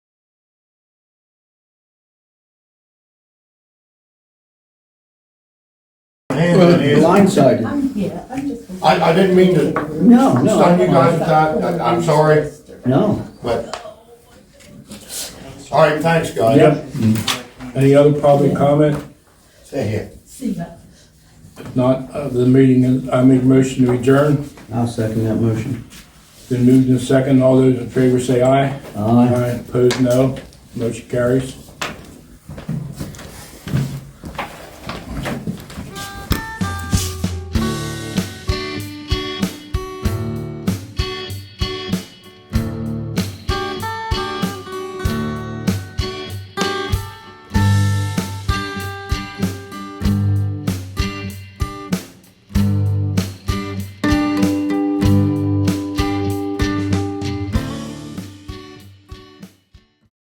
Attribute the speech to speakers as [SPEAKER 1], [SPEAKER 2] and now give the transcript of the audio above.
[SPEAKER 1] Well,
[SPEAKER 2] blindsided.
[SPEAKER 3] I'm, yeah, I'm just.
[SPEAKER 1] I- I didn't mean to
[SPEAKER 2] No, no.
[SPEAKER 1] stun you guys with that. I- I'm sorry,
[SPEAKER 2] No.
[SPEAKER 1] but, all right, thanks, guys.
[SPEAKER 4] Yep. Any other public comment?
[SPEAKER 1] Stay here.
[SPEAKER 3] See that.
[SPEAKER 4] If Not, uh, the meeting, is- I make a motion to adjourn.
[SPEAKER 2] I'll second that motion.
[SPEAKER 4] Then moved in second. All those in favor say aye.
[SPEAKER 2] Aye.
[SPEAKER 4] Opposed, no. Motion carries.